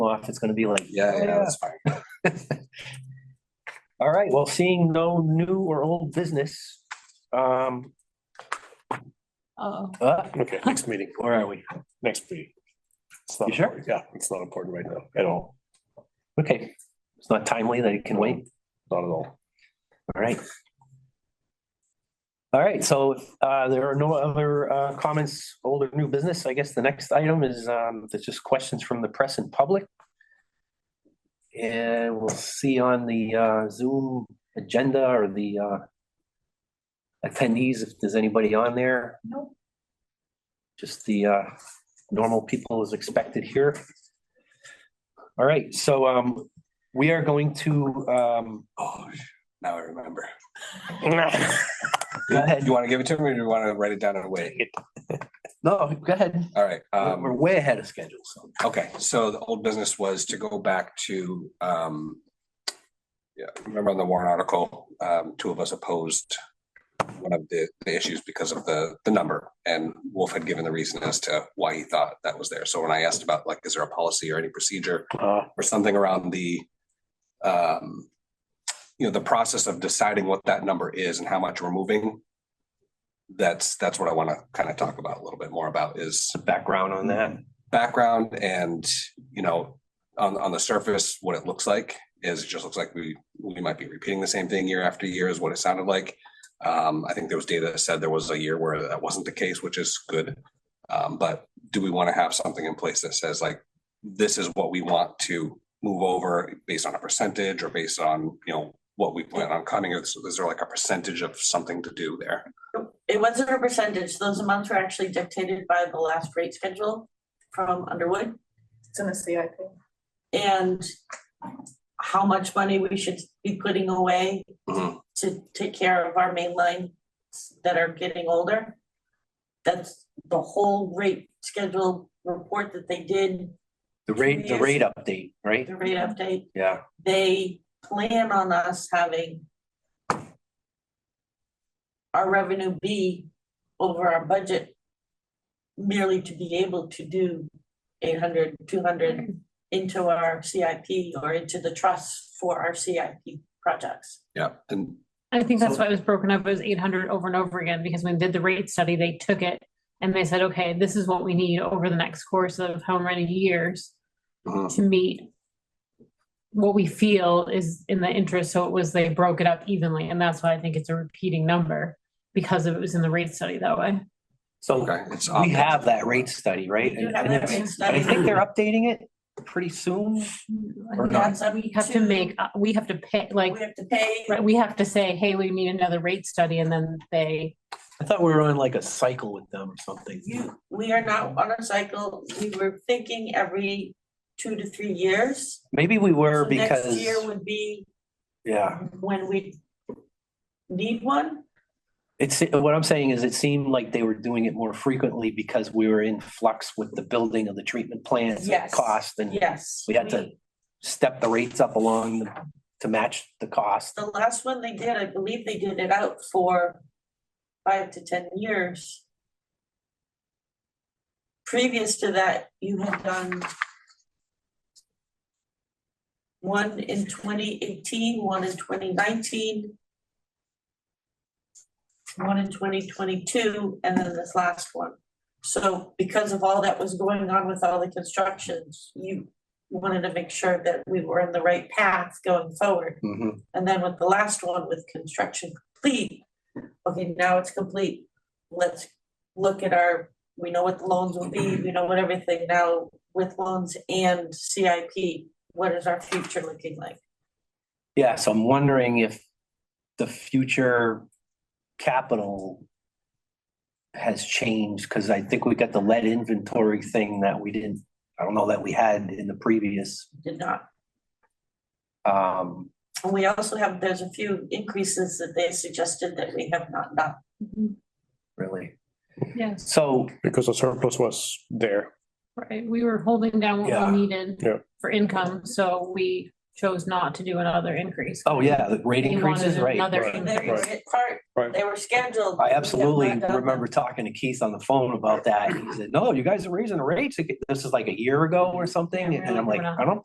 off, it's gonna be like, Yeah, yeah, that's fine. All right, well, seeing no new or old business, um, Oh, uh, Okay, next meeting, where are we? next meeting. It's not You sure? important. Yeah, it's not important right now at all, Okay, it's not timely, they can wait. not at all. All right. All right, so uh, there are no other uh, comments, old or new business. I guess the next item is, um, there's just questions from the press and public. And we'll see on the uh, Zoom agenda or the uh, attendees, if there's anybody on there. Nope. Just the uh, normal people as expected here. All right, so um, we are going to um, Oh, now I remember. go ahead. You want to give it to me or do you want to write it down and wait? No, go ahead. All right. um, We're way ahead of schedule, so. Okay, so the old business was to go back to, um. Yeah, remember on the warrant article, um, two of us opposed. One of the, the issues because of the, the number and Wolf had given the reason as to why he thought that was there. So when I asked about like, is there a policy or any procedure Uh, or something around the. Um, you know, the process of deciding what that number is and how much we're moving. That's, that's what I want to kind of talk about a little bit more about is background on that. background and, you know, on, on the surface, what it looks like is it just looks like we, we might be repeating the same thing year after year is what it sounded like. Um, I think there was data that said there was a year where that wasn't the case, which is good. Um, but do we want to have something in place that says like, this is what we want to move over based on a percentage or based on, you know, what we plan on cutting? Is, is there like a percentage of something to do there? It wasn't a percentage, those amounts were actually dictated by the last rate schedule from Underwood it's in the CIP. and how much money we should be putting away Mhm. to take care of our main lines that are getting older. That's the whole rate schedule report that they did, The rate, the rate update, right? the rate update. Yeah. they plan on us having our revenue be over our budget merely to be able to do 800, 200 into our CIP or into the trust for our CIP projects. Yeah, and I think that's why it was broken up as eight hundred over and over again, because when they did the rate study, they took it and they said, okay, this is what we need over the next course of how many years Mhm. to meet what we feel is in the interest, so it was, they broke it up evenly, and that's why I think it's a repeating number because it was in the rate study that way. So okay. it's we have that rate study, right? We do And have and that it's- rate study. I think they're updating it pretty soon. I Or not. think that's- We have to make, uh, we have to pay, like, We have to pay, right, we have to say, hey, we need another rate study, and then they, I thought we were on like a cycle with them or something. you, we are now on a cycle, we were thinking every two to three years. Maybe we were So next because, Year would be yeah, when we need one. it's, what I'm saying is it seemed like they were doing it more frequently because we were in flux with the building of the treatment plants and Yes. cost and Yes. we had to step the rates up along the- to match the cost. The last one they did, I believe they did it out for five to ten years. Previous to that, you had done one in 2018, one in 2019, one in twenty twenty-two, and then this last one. So because of all that was going on with all the constructions, you wanted to make sure that we were in the right path going forward. Mm-hmm. Mhm. And then with the last one with construction complete, okay, now it's complete. Let's look at our, we know what the loans will be, we know what everything now with loans and CIP. What is our future looking like? Yeah, so I'm wondering if the future capital has changed, because I think we got the lead inventory thing that we didn't, I don't know that we had in the previous. Did not, um and we also have, there's a few increases that they suggested that we have not done. Really. yes, So, Because the surplus was there. right, we were holding down Yeah. what we needed. Yeah. For income, so we chose not to do another increase. oh yeah, the rate They wanted increases, right? Another Right. They were increase. in part, Right. they were scheduled. I but we have absolutely not done them. remember talking to Keith on the phone about that. He said, no, you guys are raising the rates. This is like a year ago or something. And I'm like, I don't